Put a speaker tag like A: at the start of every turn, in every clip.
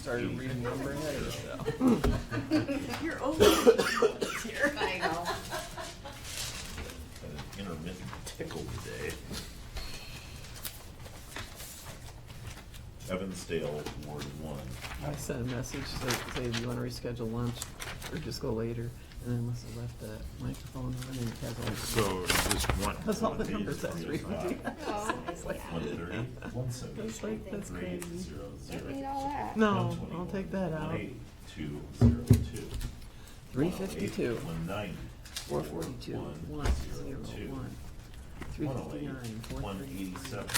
A: Started renumbering it.
B: You're over here.
C: I know.
D: Had an intermittent tickle today. Evansdale, Ward One.
A: I sent a message, so say, do you wanna reschedule lunch or just go later? And I must have left the microphone on and it has all.
E: So just one.
A: That's all the
D: These
A: numbers that's
D: three is not.
A: reading.
C: Oh,
D: One
C: yeah.
D: thirty, one seventy,
A: That's like, that's
D: three,
A: crazy.
D: zero,
C: Don't need
D: zero.
C: all that.
A: No, I'll take that out.
D: One eighty, two, zero, two.
A: Three fifty-two,
D: One ninety.
A: four forty-two, one, zero, one. Three fifty-nine, four
D: One
A: thirty-nine,
D: eighty-seven.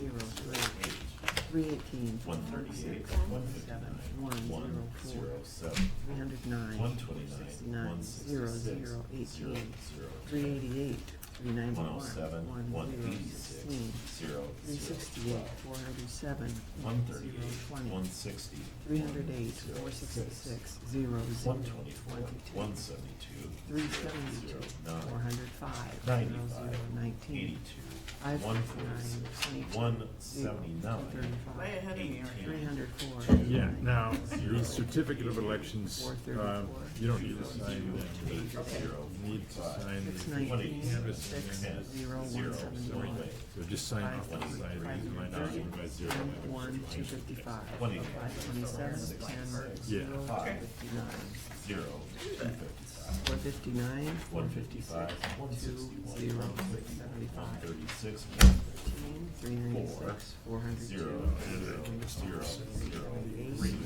A: zero, three,
D: Eight.
A: three eighteen,
D: One
A: one
D: thirty-eight,
A: six,
D: one
A: one seven,
D: fifty-nine,
A: one
D: one,
A: zero
D: zero,
A: four,
D: seven.
A: three hundred nine,
D: One
A: four
D: twenty-nine,
A: sixty-nine,
D: one
A: zero, zero,
D: sixty-six, zero,
A: eighteen,
D: zero.
A: three eighty-eight, three ninety-one,
D: One oh seven,
A: one
D: one
A: zero
D: eighty-six,
A: sixteen,
D: zero,
A: three
D: zero,
A: sixty-eight, four ninety-seven,
D: one
A: zero
D: thirty-eight, one
A: twenty,
D: sixty.
A: three hundred eight, four sixty-six, zero, zero,
D: One twenty-four,
A: one
D: one
A: two two,
D: seventy-two.
A: three seventy-two, four hundred five, zero,
D: Ninety-five,
A: zero, nineteen,
D: eighty-two,
A: Five
D: one
A: fifty-nine,
D: forty-six,
A: twenty-two,
D: one
A: zero, two
D: seventy-nine,
B: Way
A: thirty-five,
B: ahead of me, Aaron.
A: three hundred four.
E: Yeah, now, the certificate of elections, uh, you don't need to sign that.
D: eight, zero,
E: You need to
D: five.
E: sign,
A: Six
E: the-
A: nineteen,
E: Canvas.
A: six,
D: Ten,
A: zero,
D: zero,
A: one seventy-one.
D: one.
E: so just sign off on the side, reason my not by zero.
A: Ten, one, two fifty-five,
D: Twenty.
A: five twenty-seven, ten,
E: Yeah.
A: zero,
D: Okay.
A: fifty-nine,
D: zero, two fifty-five,
A: four fifty-nine,
D: one fifty-five, one
A: two,
D: sixty-one,
A: zero,
D: one
A: six
D: One
A: seventy-five,
D: thirty-six, one thirty,
A: fifteen, three ninety-six, four hundred two,
D: zero, zero, zero, zero,
A: eight,
D: three,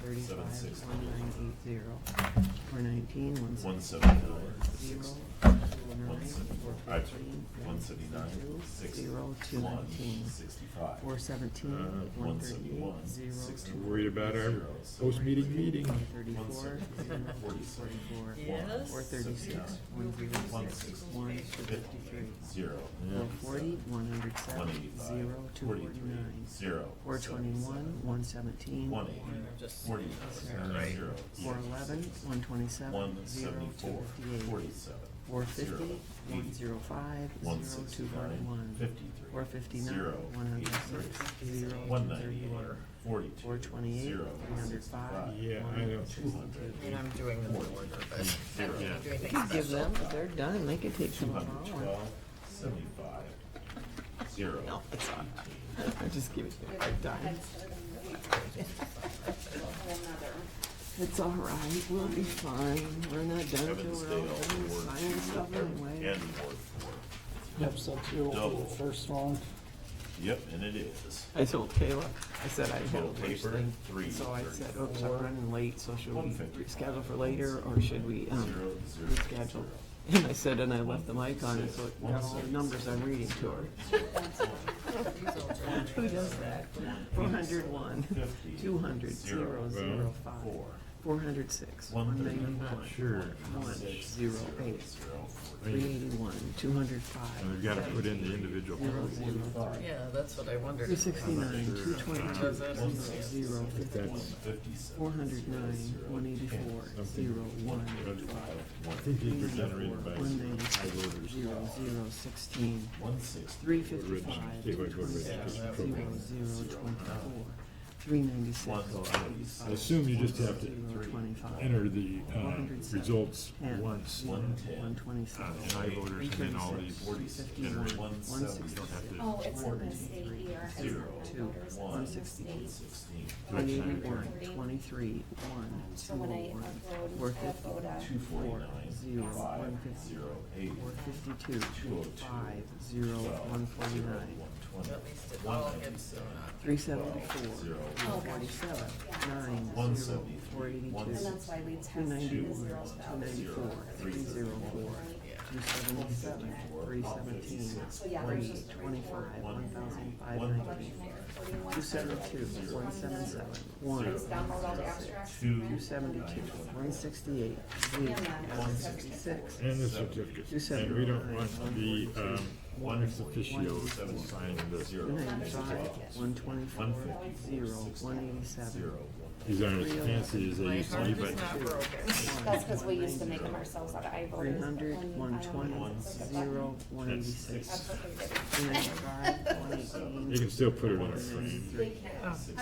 A: thirty-five,
D: seven, six,
A: one nine eight zero, four nineteen, one seventy,
D: one seventy-nine,
A: zero,
D: six,
A: zero,
D: one
A: nine, four
D: seventy-five,
A: fifteen,
D: one seventy-nine, six,
A: zero, two
D: one,
A: nineteen,
D: sixty-five,
A: four seventeen,
E: Uh,
A: one
D: one
A: thirty-eight,
D: seventy-one,
A: zero,
D: sixty.
A: two
E: Worried about our post-meeting meeting?
A: One thirty-four, zero,
D: Forty-seven.
A: forty-four,
B: Yes.
A: four thirty-six, one zero six, one fifty-three,
D: Zero.
A: four forty, one hundred
D: One
A: seven,
D: eighty-five.
A: zero, two forty-nine,
D: Zero.
A: four twenty-one, one seventeen,
D: One
B: I'm
D: eighty.
B: just-
D: Forty-nine. Zero.
A: four eleven, one
D: One
A: twenty-seven, zero, two
D: seventy-four.
A: fifty-eight,
D: Forty-seven.
A: four
D: Zero.
A: fifty, one
D: Eighty.
A: zero five,
D: One
A: zero, two
D: sixty-nine.
A: forty-one,
D: Fifty-three.
A: four fifty-nine,
D: Zero.
A: one hundred
D: Eighty-three.
A: six, zero,
D: One
A: two
D: ninety-eight.
A: thirty-one,
D: Forty-two.
A: four twenty-eight,
D: Zero.
A: three hundred five,
D: Sixty-five.
E: Yeah, I know.
D: Two hundred.
C: doing them in
D: Forty.
C: order, but I don't
E: Yeah.
C: need to do anything
A: You could give
C: special.
A: them, if they're done, they could take
D: Two
A: some
D: hundred
A: tomorrow.
D: twelve. Seventy-five. Zero.
A: No, it's not.
D: Eighteen.
A: I just give it to them, I'm done. It's all right, we'll be fine, we're not done till we're all done
D: Evansdale,
A: with
D: Ward
A: signing stuff
D: two,
A: anyway.
D: and Ward four.
F: Yep, so two for
D: Double.
F: the first one.
D: Yep, and it is.
A: I told Kayla, I said I had a
D: Total
A: lunch
D: paper,
A: thing,
D: three,
A: so I said,
D: thirty-four.
A: oops, I'm running late, so should we
D: One fifty.
A: reschedule for later, or should we,
D: Zero,
A: um,
D: zero,
A: reschedule?
D: zero.
A: And I said, and I left the mic on, so it got all the numbers I'm reading to her. Who does that? Four hundred one,
D: Fifty.
A: two hundred, zero, zero, five,
D: Four.
A: four hundred six,
D: One
A: one
D: thirty.
A: ninety-one,
E: Sure.
A: one, zero, eight,
D: Zero, four.
A: three eighty-one, two hundred five,
E: And We've got to put in the individual.
A: zero, zero,
D: Five.
C: Yeah, that's what I wondered.
A: three sixty-nine, two twenty-two,
D: One
A: zero,
D: sixty.
A: zero, fifty,
D: One fifty-seven.
A: four hundred nine, one eighty-four, zero, one,
E: I think these were generated by
A: one
E: high
A: ninety-six,
E: voters.
A: zero, zero, sixteen,
D: One sixty.
A: three
E: Original,
A: fifty-five,
E: gateway voter
A: zero,
E: registration
A: zero,
E: program.
A: twenty-four, three ninety-six,
D: One
A: forty-five.
D: I
E: assume you just have to
A: Zero, twenty-five.
E: Enter the uh,
A: 107,
E: results
A: 10,
E: once
A: zero,
D: One ten.
A: One
E: on
A: twenty-seven.
E: high voters and then all these.
D: Forty six.
E: Generate
D: One
A: One
D: seventy.
E: You don't
A: sixty-six.
E: have to.
G: Oh, it's in the state here.
D: Zero.
A: Two.
D: One.
A: One sixty-eight.
D: Sixteen.
E: Right.
A: One eighty-one, twenty-three, one,
G: So when
A: two,
G: I upload,
A: four
G: I upload
A: fifty,
G: a
D: Two forty-nine.
A: Zero,
D: Five.
A: one fifty.
D: Zero, eight.
A: four fifty-two,
D: Two oh two.
A: five, zero,
D: Twelve.
A: one
D: Zero,
A: forty-nine,
D: one twenty.
C: At least it
D: One
C: all
D: ninety
C: gets
D: seven.
A: three seventy-four,
D: Zero.
G: Oh, gosh.
A: forty-seven,
D: One
A: nine, zero,
D: seventy three.
A: four
D: One
G: And
A: eighty-two,
G: that's why we
A: two
G: tested the
A: ninety-one,
G: zeros
A: two
G: out.
A: ninety-four, three zero four, two seventy-seven, three seventeen, three twenty-five, one thousand five nineteen, two seventy-two, one seventy-seven, one,
G: Just download all the abstracts.
D: Two.
A: two seventy-two, one sixty-eight, zero, one sixty-six,
E: And the certificate. And we don't want the um, one ex officio to sign this.
A: two ninety-five, one twenty-four, zero, one eighty-seven,
E: These aren't as fancy as they
C: My
E: used to
C: heart
E: be,
C: is
E: but
C: not broken.
G: That's because we used to make them ourselves out of iVoters. but
A: three hundred,
G: when you
A: one
G: finally
A: twenty,
G: click the button,
A: zero, one eighty-six,
G: that's what they did.
A: two ninety-five, one eighteen,
E: you can still put it on a frame.
A: ninety-three.
G: They can't.